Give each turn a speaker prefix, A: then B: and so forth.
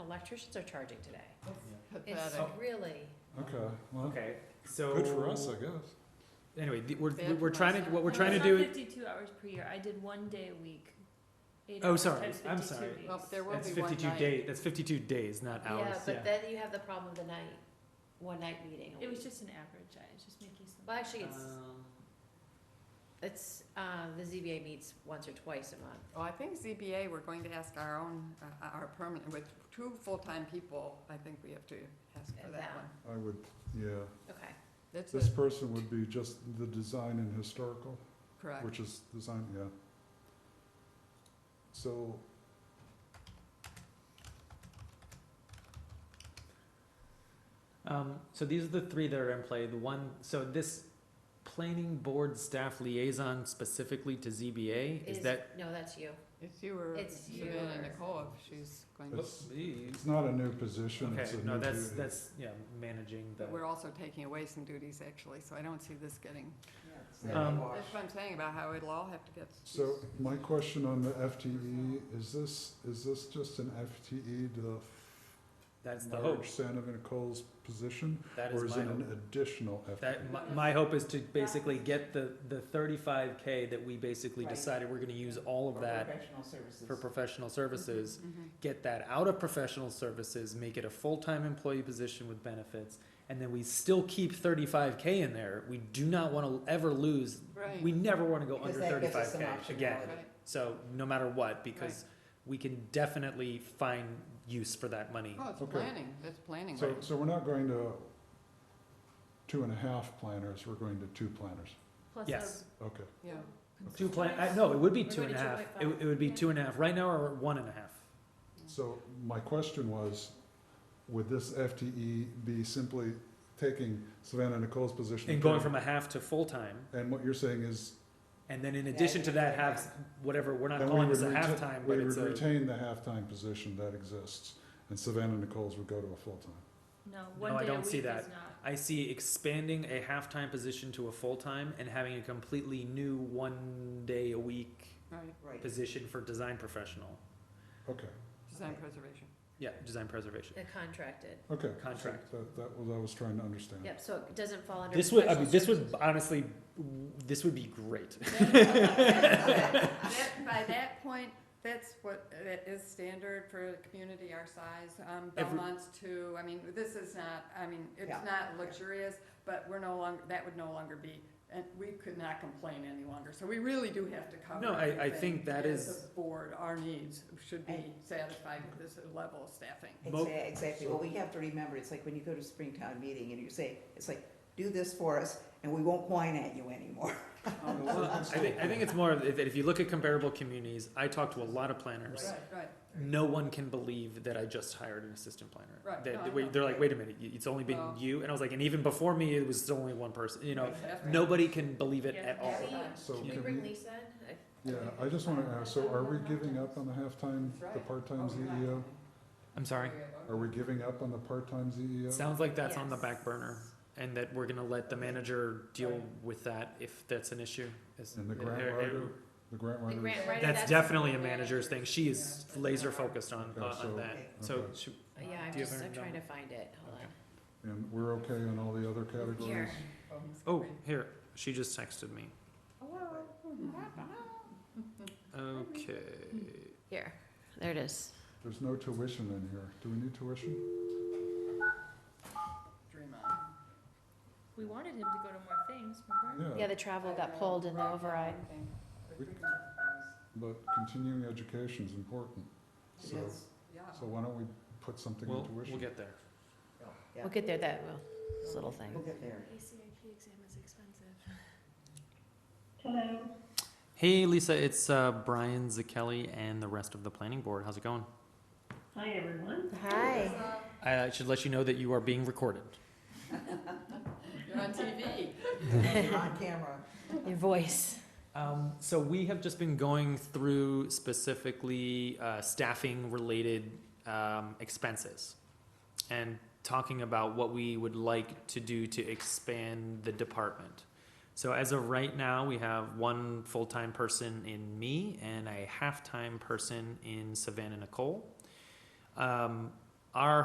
A: electricians are charging today. It's
B: uh,
C: Pathetic.
A: really,
D: Okay, well,
E: Okay, so.
D: good for us, I guess.
E: Anyway, the- we're,
C: Bad
E: we're- we're
C: for
E: trying
C: us.
E: to, what we're
B: No,
E: trying to
B: it's
E: do.
B: not Fifty-two hours per year. I did one day a week. Eight
E: Oh,
B: hours
E: sorry.
B: times
E: I'm
B: 52
E: sorry.
B: weeks.
C: Well, there will
E: That's
C: be one
E: fifty-two
C: night.
E: days, that's fifty-two days, not
A: yeah,
E: hours,
A: but
E: yeah.
A: then you have the problem of the night, one night meeting. a
B: It was
A: week.
B: just uh, an average. I was just making some.
A: Well, actually, it's,
E: Um,
A: it's, uh, the ZBA meets once or twice a month.
C: Well, I think ZBA, we're going to ask our own, uh, our permanent, with two full-time people, I think we have to ask for that
A: Yeah.
C: one.
D: I would, yeah,
A: Okay,
C: That's
D: this
C: a-
D: person would be just the design and historical,
C: correct.
D: which is design, yeah. So,
E: Um, so these are the three that are in play. The one, so this planning board staff liaison specifically to ZBA, is
A: Is-
E: that?
A: no, that's you.
C: It's you or
A: It's you
C: Savannah
A: or-
C: Nicole, if she's going to,
D: It's-
E: Oopsies.
D: it's not a new position,
E: Okay,
D: it's a new
E: no, that's,
D: duty.
E: that's, yeah, managing the.
C: but we're also taking away some duties, actually, so I don't see this getting.
E: Um,
C: That's what I'm saying about how it'll all have to get.
D: So my question on the FTE, is this, is this just an E, FTE to
E: That's the hope.
D: merge Santa Ana Nicole's position?
E: That
D: Oh. Or
E: is
D: is
E: my
D: it
E: hope.
D: an additional E? FTE?
E: That, my, my hope is to basically get the, the thirty-five K that we basically
F: Right.
E: decided we're gonna use all of that
F: Professional services.
E: for professional services.
C: Mhm.
E: Get that out of professional services, make it a full-time employee position with benefits, and then we still keep thirty-five K in there. We do not wanna ever lose,
C: Right.
E: we never wanna go
F: Because
E: under
F: that gives us
E: thirty-five K
F: some
E: again.
F: optionality.
C: mm-hmm. Right.
E: So, no matter what, because we can definitely find use for that money.
C: Oh, it's
D: Okay.
C: planning, that's planning.
D: So,
C: right?
D: so we're not going to two and a half planners, we're going to two planners,
B: Plus
E: Yes.
D: okay.
C: Yeah,
E: Two plan, I, no, it would be
A: We're
E: two and a
A: gonna
E: half.
A: do
E: It, would- it would be
B: Yeah.
E: two and a half. Right now, we're at one and a half.
D: So my question was, would this FTE be simply taking Savannah Nicole's position?
E: And going from a half to full-time,
D: And what you're saying is,
E: and then in
F: Yeah,
E: addition to
F: yeah,
E: that,
F: yeah.
E: have whatever, we're not
D: then we
E: calling
D: would
E: this a
D: retain,
E: halftime,
D: we
E: but
D: would
E: it's a.
D: retain the halftime position that exists, and Savannah Nicole's would go to a full-time.
B: No, one
E: I
B: day a
E: don't
B: week
E: see
B: is
E: that.
B: not.
E: I see expanding a halftime position to a full-time and having a completely new one-day-a-week
C: right,
F: Right.
E: position for design professional.
D: Okay,
C: design
F: Okay.
C: preservation.
E: Yeah, design preservation,
A: The contracted.
D: okay.
E: contract.
D: That, that was, I was trying to understand.
A: Yep, so it doesn't fall under.
E: This would, I
A: professional
E: mean, this would
A: services.
E: honestly, this would be great.
C: That- By that point, that's what, that is standard for a community our size, um,
E: Every-
C: Belmont's too, I mean, this is not, I mean, it's
F: Yeah.
C: not luxurious, but we're no longer, that would no longer be, and we could not complain any longer, so we really do have to cover
E: No, I- I
C: everything
E: think that
C: as
E: is-
C: a Board, our needs should be
F: And-
C: satisfied with this level of staffing.
E: Mo-
F: Exactly, exactly. Well, we have to remember, it's like when you go to Springtown meeting and you say, it's like, do this for us and we won't whine at you anymore.
E: Um, Well, I think, I think it's more of- that if you look at comparable communities, I talk to a lot of planners.
C: Right, right,
E: No one can believe that I just hired an assistant planner.
C: Right.
E: They,
C: No, I
E: they-
C: know.
E: they're like, wait a minute, you- it's only been
C: Well-
E: you, and I was like, and even before me, it was only one person. You know,
C: That's right.
E: nobody can believe it at
B: Yeah.
E: all.
A: Can we-
D: So
A: Can we
D: could
A: bring
D: we-
A: Lisa in? I-
D: Yeah, I just wanna ask, so are we giving up on the halftime,
C: That's
D: the
C: right.
D: part-time
C: Oh, you're
D: ZEO?
C: right.
E: I'm sorry.
D: Are we giving up on the part-time E ZEO?
E: Sounds like that's on the back
A: Yes.
E: burner, and that we're gonna let the manager deal with that if that's an issue. Is-
D: And the
E: eh, eh,
D: grant writer, the grant
A: The
D: writer,
A: grant writer.
E: That's definitely a manager's thing. She is
C: Yeah.
E: laser focused on,
D: Okay,
E: on-
D: so-
E: on that. So,
D: okay.
E: she-
A: Yeah, I'm
E: Do you have
A: just,
E: her
A: I'm trying to
E: number?
A: find it, hold
E: Okay.
A: on.
D: and we're okay on all the other categories?
A: Here.
E: oh, here, she just texted me.
C: hmm.
E: Okay.
A: Here, there it is.
D: There's no tuition in here. Do we need tuition?
C: Dream on.
B: We wanted him to go to more things, remember?
A: Yeah,
D: Yeah,
A: the travel got pulled in the override.
D: We- but continuing education is important. So,
C: Yeah.
D: so why don't we put something in
E: We'll,
D: tuition?
E: we'll get there.
F: Yeah.
A: We'll get there, that, well, this little thing.
F: We'll get there.
B: ACIP exam is expensive.
E: Hey, Lisa, it's uh, Brian Zakelli and the rest of the planning board. How's it going?
A: Hi.
E: I uh, should let you know that you are being recorded.
C: You're on TV.
F: On camera.
A: Your voice.
E: Um, so we have just been going through specifically uh, staffing related um, expenses and talking about what we would like to do to expand the department. So as of right now, we have one full-time person in me and a half-time person in Savannah Nicole. Um,